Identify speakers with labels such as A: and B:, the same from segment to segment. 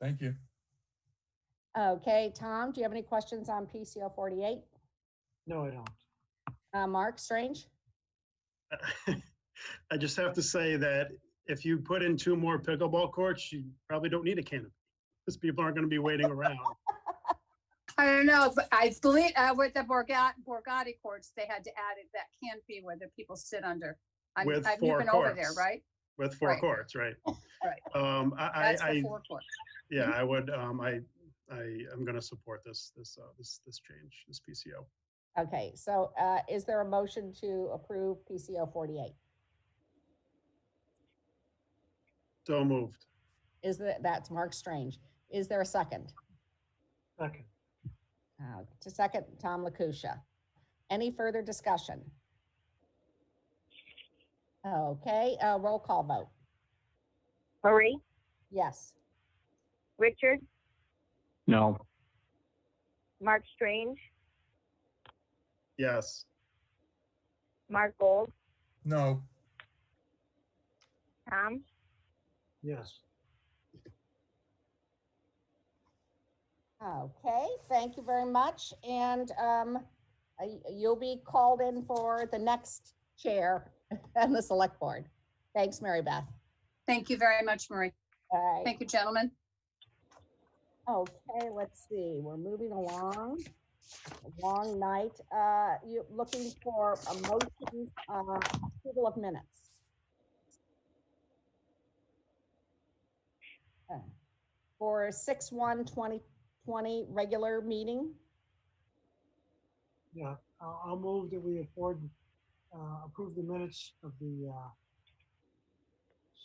A: Thank you.
B: Okay, Tom, do you have any questions on PCO 48?
C: No, I don't.
B: Uh, Mark Strange?
D: I just have to say that if you put in two more pickleball courts, you probably don't need a canopy. Because people aren't going to be waiting around.
E: I don't know, but I believe, uh, with the Borgata, Borgata courts, they had to add it, that canopy where the people sit under. I'm-
D: With
E: I've
D: four
E: never been over there,
D: courts.
E: right?
D: With four
E: Right.
D: courts, right?
E: Right.
D: Um, I,
E: That's
D: I,
E: the
D: I,
E: four courts.
D: yeah, I would, um, I, I am going to support this, this, uh, this, this change, this PCO.
B: Okay, so, uh, is there a motion to approve PCO 48?
D: So moved.
B: Is that, that's Mark Strange. Is there a second?
C: Second,
B: Uh, To second, Tom Lakusha. Any further discussion? Okay, uh, roll call vote.
F: Marie,
B: Yes.
F: Richard,
G: No.
F: Mark Strange,
D: Yes.
F: Mark Gold,
A: No,
F: Tom,
C: yes.
B: Okay, thank you very much. And, um, uh, y- you'll be called in for the next chair and the select board. Thanks, Mary Beth.
E: Thank you very much, Marie.
B: All right.
E: Thank you, gentlemen.
B: Okay, let's see, we're moving along. A Long night, uh, you looking for a motion, uh, approval of minutes. Uh, For six one twenty twenty regular meeting,
C: Yeah, I'll, I'll move that we afford, uh, approve the minutes of the, uh,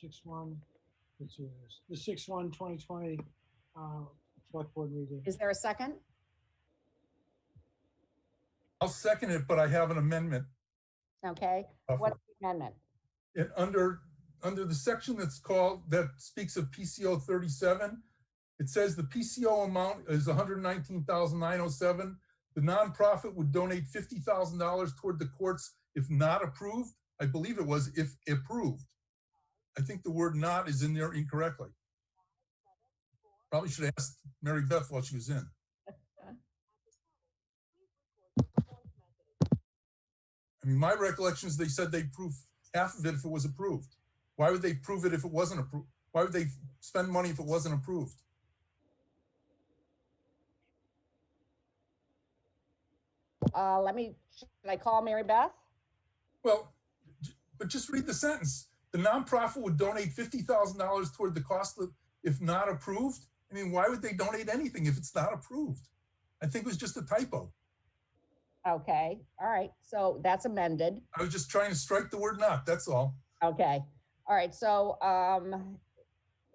C: six one, let's see, what it is, the six one twenty twenty, uh, select board meeting.
B: is there a second?
A: I'll second it, but I have an amendment.
B: Okay,
A: uh,
B: what
A: for-
B: is the amendment?
A: It under, under the section that's called, that speaks of PCO thirty-seven, it says the PCO amount is $119,907. The nonprofit would donate fifty thousand dollars toward the courts if not approved. I believe it was if approved. I think the word not is in there incorrectly. Probably should have asked Mary Beth while she was in. I mean, my recollection is they said they approved half of it if it was approved. Why would they prove it if it wasn't approved? Why would they spend money if it wasn't approved?
B: Uh, let me, should I call Mary Beth?
A: Well, j- but just read the sentence. The nonprofit would donate fifty thousand dollars toward the cost of, if not approved. I mean, why would they donate anything if it's not approved? I think it was just a typo.
B: Okay, all right, so that's amended.
A: I was just trying to strike the word not, that's all.
B: Okay, all right, so, um,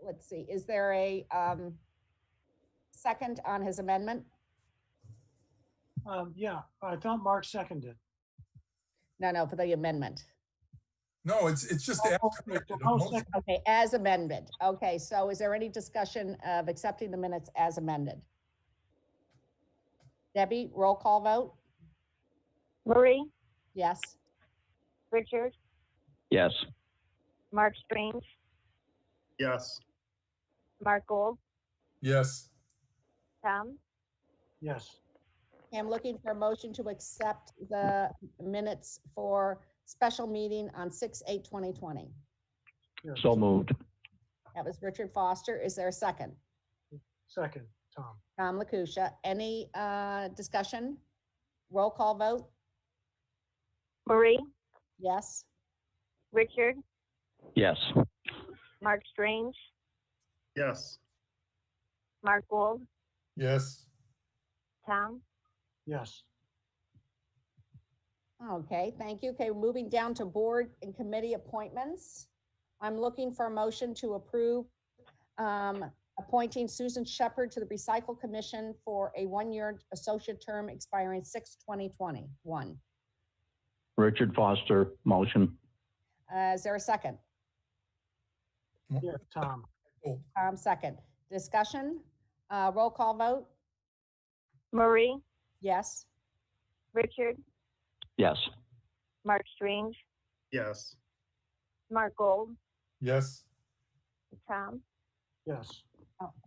B: let's see, is there a, um, second on his amendment?
C: Um, yeah, I thought Mark seconded.
B: No, no, for the amendment.
A: No, it's, it's just.
C: I'll-
A: after
C: I'll-
A: corrected, a
C: I'll
A: motion.
C: second-
B: Okay, as amended. Okay, so is there any discussion of accepting the minutes as amended? Debbie, roll call vote?
F: Marie,
B: Yes?
F: Richard,
G: Yes.
F: Mark Strange,
D: Yes.
F: Mark Gold,
A: Yes,
F: Tom,
C: Yes,
B: I'm looking for a motion to accept the minutes for special meeting on six, eight, twenty twenty.
C: here,
G: So moved.
B: That was Richard Foster. Is there a second?
C: second, Tom.
B: Tom Lakusha, any uh, discussion? Roll call vote,
F: Marie,
B: yes?
F: Richard,
G: Yes.
F: Mark Strange,
D: Yes.
F: Mark Gold,
A: yes.
F: Tom,
C: Yes,
B: Okay, thank you. Okay, moving down to board and committee appointments. I'm looking for a motion to approve um, appointing Susan Shepherd to the Recycle Commission for a one-year associate term expiring 6/2021.
G: Richard Foster, motion.
B: Uh, Is there a second?
C: here, Tom.
A: Oh,
B: Um, Second. Discussion? Uh, Roll call vote?
F: Marie,
B: Yes?
F: Richard,
G: Yes.
F: Mark Strange,
D: Yes.
F: Mark Gold,
A: yes.
F: Tom.
C: Yes.